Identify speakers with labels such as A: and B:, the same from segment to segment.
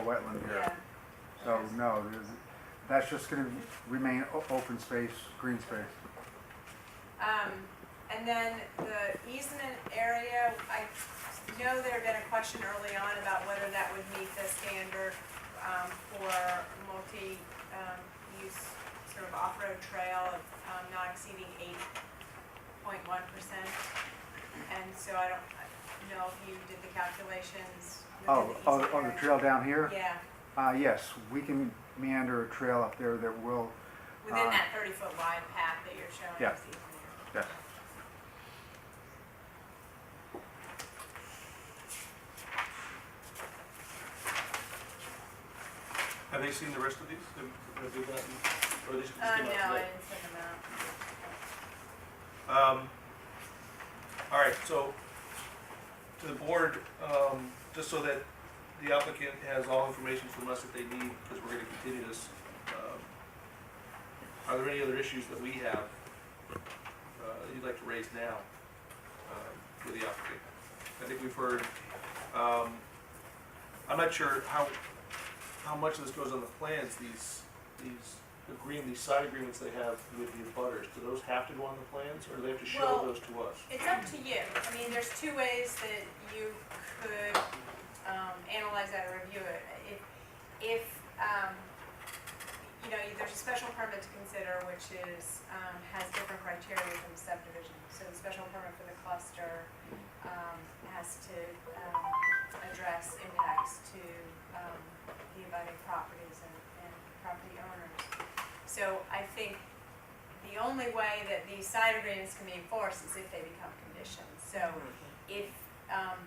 A: wetland here.
B: Yeah,
A: So, no, there's- that's just gonna remain o- open space, green space.
B: um, and then the easement area, I know there had been a question early on about whether that would meet the standard, um, for multi, um, use sort of off-road trail of, um, not exceeding eight point one percent. And so I don't know if you did the calculations.
A: Oh,
B: within
A: oh,
B: easement
A: oh, the
B: area.
A: trail down here?
B: Yeah,
A: Uh, yes, we can meander a trail up there that will,
B: within
A: Uh,
B: that thirty-foot wide path that you're showing.
A: Yeah.
B: as easement area.
A: yes.
C: Have they seen the rest of these? Have have they gotten, or these just
B: Uh,
C: came
B: no,
C: out
B: I
C: today?
B: didn't send them out.
C: Um, all right, so to the board, um, just so that the applicant has all information from us that they need, because we're gonna continue this. um, Are there any other issues that we have, uh, that you'd like to raise now, um, with the applicant? I think we've heard, um, I'm not sure how, how much of this goes on the plans, these, these agreement, these side agreements they have with the abutters. do those have to go on the plans, or do they have to show
B: Well-
C: those to us?
B: It's up to you. I mean, there's two ways that you could um, analyze that or review it. If, if um, you know, there's a special permit to consider, which is, um, has different criteria than the subdivision. So the special permit for the cluster um, has to um, address impacts to um, the abutting properties and and property owners. So I think the only way that these side agreements can be enforced is if they become conditions. So if, um,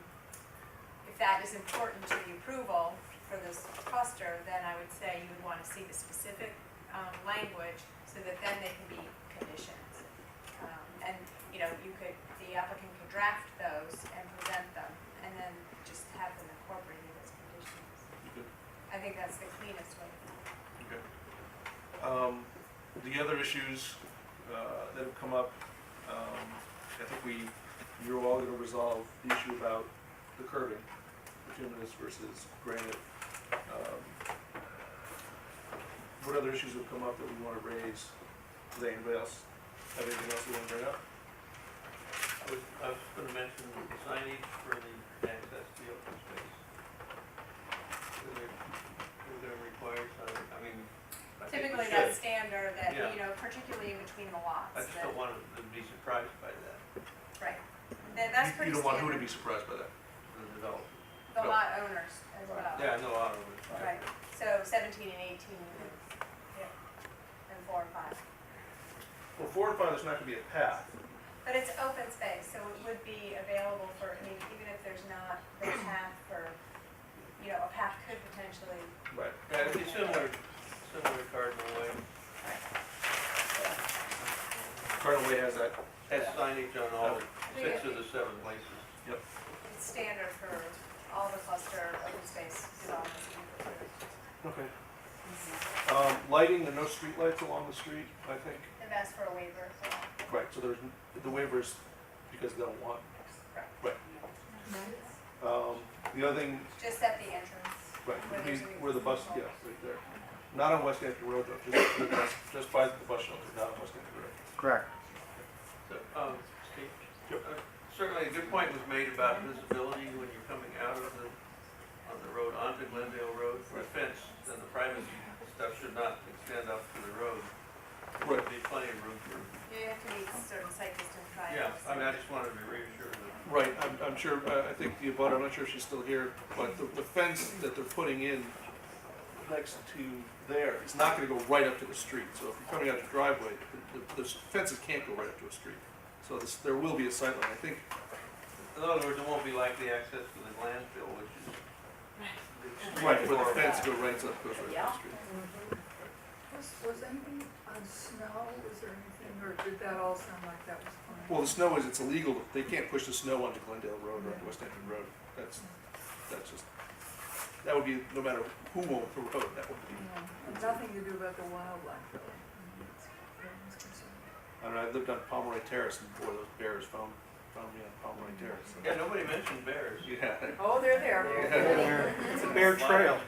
B: if that is important to the approval for this cluster, then I would say you would want to see the specific, um, language so that then they can be conditions. Um, and, you know, you could, the applicant could draft those and present them and then just have them incorporated as conditions.
C: Okay.
B: I think that's the cleanest way.
C: Um, the other issues, uh, that have come up, um, I think we, you're all gonna resolve the issue about the curbing, bituminous versus granite. Um, What other issues have come up that we wanna raise? Does anybody else have anything else they wanna bring up?
D: I was, I was gonna mention the signage for the access to the open space. Is there, is there required sign, I mean, I think we
B: Typically,
D: should.
B: that's standard that,
D: Yeah.
B: you know, particularly in between the
D: I
B: lots,
D: just
B: that,
D: don't want them to be surprised by that,
B: right. That, that's
C: You-
B: pretty
C: You don't want who to be
B: standard,
C: surprised by that.
D: the development.
B: the
C: no.
B: lot owners as well.
D: Yeah, no, I don't. know.
B: Right, so seventeen and eighteen, yeah, and four and five.
C: Well, four and five, there's not gonna be a path.
B: But it's open space, so it would be available for, I mean, even if there's not the path for, you know, a path could potentially,
C: Right.
D: Yeah, it'd be similar, similar to Cardinal Way,
C: Cardinal Way has that.
D: has signage on all
B: think
D: six
B: it-
D: of the seven places.
B: it's standard for all the cluster open space developments. in the village.
C: Okay. Um, lighting, there are no streetlights along the street, I think.
B: They've asked for a waiver for that.
C: Right, so there's, the waivers, because they don't want, right. Um, the other thing,
B: Just at the entrance.
C: right,
B: Where
C: would be
B: there's a-
C: where the bus, yeah, right there. Not on West Hampton Road though, just, just by the bus shelter, not on West Hampton Road.
A: Correct.
D: So, um, Steve, uh, certainly a good point was made about visibility when you're coming out of the, on the road onto Glendale Road. The fence and the privacy stuff should not extend up to the road. There should be plenty of room for,
B: You have to meet certain site distance
D: yeah,
B: triangles.
D: I mean, I just wanted to reassure them.
C: Right, I'm, I'm sure, uh, I, I think the abutter, I'm not sure if she's still here, but the, the fence that they're putting in next to there is not gonna go right up to the street, so if you're coming out your driveway, the, the the fences can't go right up to a street. So this, there will be a sightline, I think,
D: In other words, it won't be like the access to the landfill, which is. extremely
C: right, where the
D: horrible.
C: fence go right up, goes right up to the street.
E: Was, was anything on snow, was there anything, or did that all sound like that was fine?
C: Well, the snow is, it's illegal, they can't push the snow onto Glendale Road or onto West Hampton Road, that's, that's just, that would be, no matter who owns the road, that would be.
E: Yeah, and Nothing to do about the wildlife, really. No one's concerned.
C: I don't know, I lived on Pomeroy Terrace and boy, those bears found, found me on Pomeroy Terrace.
D: Yeah, nobody mentioned bears.
C: Yeah.
E: Oh, they're there.
A: It's a bear
D: trail.